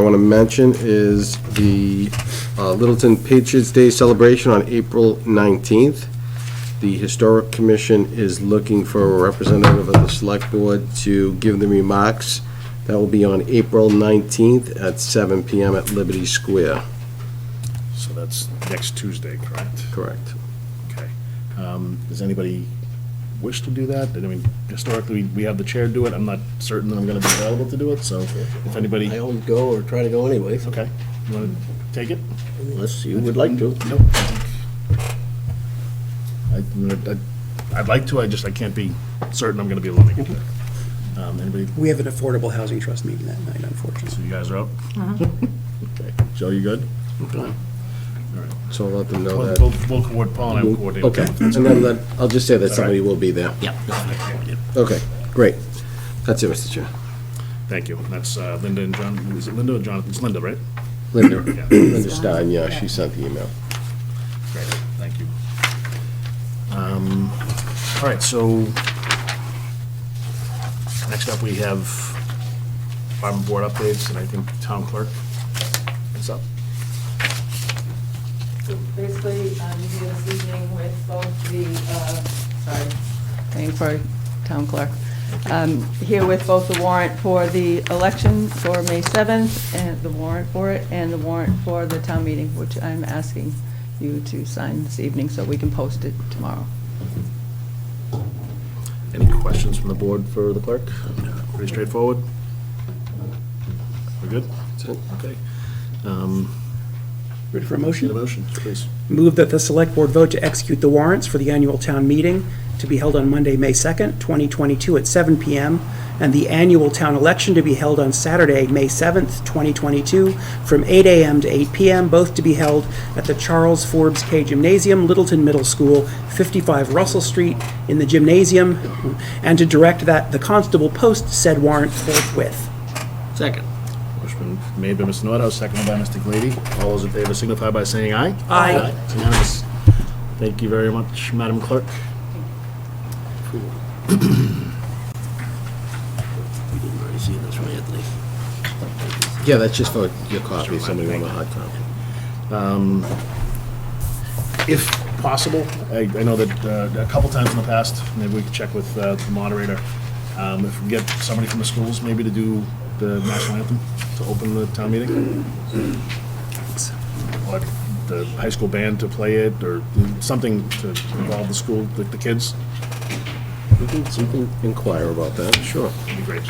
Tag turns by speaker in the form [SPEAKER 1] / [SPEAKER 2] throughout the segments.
[SPEAKER 1] want to mention is the uh, Littleton Patriots Day celebration on April 19th. The Historic Commission is looking for a representative of the Select Board to give the remarks. That will be on April 19th at 7 PM at Liberty Square.
[SPEAKER 2] So that's next Tuesday, correct?
[SPEAKER 1] Correct.
[SPEAKER 2] Okay. Um, Does anybody wish to do that? I mean, historically, we have the chair do it. I'm not certain that I'm going to be available to do it, so if anybody,
[SPEAKER 3] I always go or try to go anyway,
[SPEAKER 2] okay, you want to take it?
[SPEAKER 3] unless you would like to.
[SPEAKER 2] Nope. I- I- I'd like to, I just, I can't be certain I'm going to be able to make it there. Um, Anybody,
[SPEAKER 4] We have an affordable housing trust meeting that night, unfortunately.
[SPEAKER 2] so you guys are up? Okay. Joe, you good?
[SPEAKER 1] So I'll let them know
[SPEAKER 2] We'll,
[SPEAKER 1] that.
[SPEAKER 2] we'll we'll coordinate, Paul and I will coordinate.
[SPEAKER 1] Okay, and then let- I'll just say that
[SPEAKER 2] right.
[SPEAKER 1] somebody will be there.
[SPEAKER 3] Yeah.
[SPEAKER 1] Okay, great. That's it, Mr. Chair.
[SPEAKER 2] Thank you. That's uh, Linda and John, is it Linda or Jonathan? It's Linda, right?
[SPEAKER 1] Linda,
[SPEAKER 2] Yeah.
[SPEAKER 1] Linda Stein, yeah, she sent the email.
[SPEAKER 2] Great, thank you. Um, All right, so next up, we have farm board updates, and I think town clerk is up.
[SPEAKER 5] So basically, um, I'm here this evening with both the, uh, sorry, waiting for town clerk. Um, Here with both the warrant for the election for May 7th, and the warrant for it, and the warrant for the town meeting, which I'm asking you to sign this evening so we can post it tomorrow.
[SPEAKER 2] Any questions from the board for the clerk? Pretty straightforward? We're good?
[SPEAKER 1] That's it.
[SPEAKER 2] Okay. Um,
[SPEAKER 4] Ready for a
[SPEAKER 2] Need a
[SPEAKER 4] motion?
[SPEAKER 2] motion, please?
[SPEAKER 4] Move that the Select Board vote to execute the warrants for the annual town meeting to be held on Monday, May 2nd, 2022 at 7 PM, and the annual town election to be held on Saturday, May 7th, 2022, from 8 AM to 8 PM, both to be held at the Charles Forbes K Gymnasium, Littleton Middle School, 55 Russell Street, in the gymnasium, and to direct that the constable post said warrant forthwith.
[SPEAKER 3] Second.
[SPEAKER 2] Motion made by Mr. Noetto, seconded by Mr. Glady. All those in favor signify by saying aye.
[SPEAKER 4] Aye.
[SPEAKER 2] It's Unanimous. Thank you very much, Madam Clerk.
[SPEAKER 3] We didn't already see this, right, Anthony?
[SPEAKER 1] Yeah, that's just for your copy, somebody want a hard copy.
[SPEAKER 2] If possible, I, I know that uh, a couple times in the past, maybe we could check with uh, the moderator, um, if we get somebody from the schools maybe to do the national anthem to open the town meeting. Or the high school band to play it, or something to involve the school, the the kids,
[SPEAKER 1] We can, we can inquire about that, sure.
[SPEAKER 2] would be great.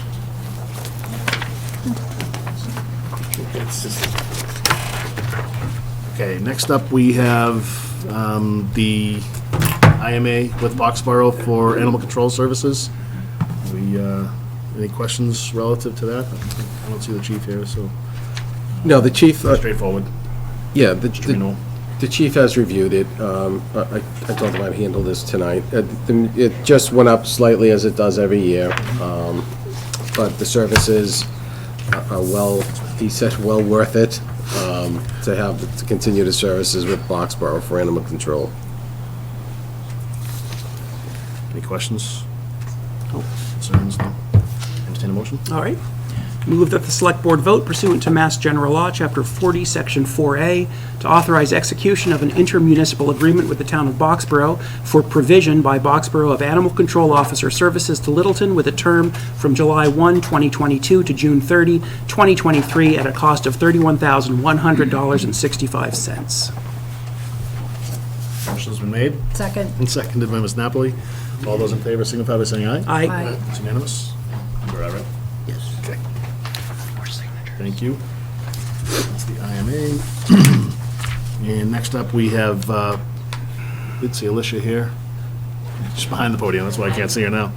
[SPEAKER 2] Okay, next up, we have um, the IMA with Boxborough for Animal Control Services. We, uh, any questions relative to that? I don't see the chief here, so
[SPEAKER 1] No, the chief, uh,
[SPEAKER 2] straightforward,
[SPEAKER 1] yeah, the,
[SPEAKER 2] you know.
[SPEAKER 1] the- the chief has reviewed it. Um, I I- I told him I'd handle this tonight. Uh, the- It just went up slightly as it does every year, Um, but the services are- are well, he said, well worth it um, to have, to continue the services with Boxborough for animal control.
[SPEAKER 2] Any questions?
[SPEAKER 1] Oh.
[SPEAKER 2] No Concerns, no? Entertain a motion?
[SPEAKER 4] All right. Move that the Select Board vote pursuant to Mass General Law, Chapter 40, Section 4A, to authorize execution of an intermunicipal agreement with the town of Boxborough for provision by Boxborough of Animal Control Officer Services to Littleton with a term from July 1, 2022 to June 30, 2023, at a cost of $31,100.65.
[SPEAKER 2] Motion's been made
[SPEAKER 5] Second.
[SPEAKER 2] and seconded by Ms. Napoli. All those in favor signify by saying aye.
[SPEAKER 4] Aye.
[SPEAKER 2] It's unanimous? You're all right?
[SPEAKER 3] Yes.
[SPEAKER 2] Okay. Thank you. That's the IMA. And next up, we have, uh, did see Alicia here. She's behind the podium, that's why I can't see her now.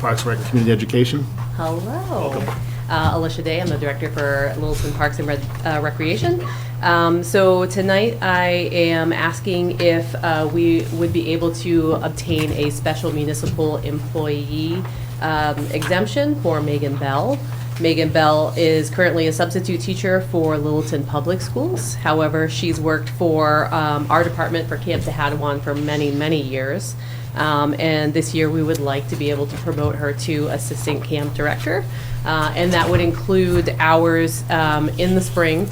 [SPEAKER 2] Parks Rec and Community Education.
[SPEAKER 6] Hello. Uh, Alicia Day, I'm the director for Littleton Parks and Red- uh, Recreation. Um, So tonight, I am asking if uh, we would be able to obtain a special municipal employee um, exemption for Megan Bell. Megan Bell is currently a substitute teacher for Littleton Public Schools. However, she's worked for um, our department for Camp Tahadawan for many, many years. Um, And this year, we would like to be able to promote her to Assistant Camp Director. Uh, And that would include hours um, in the spring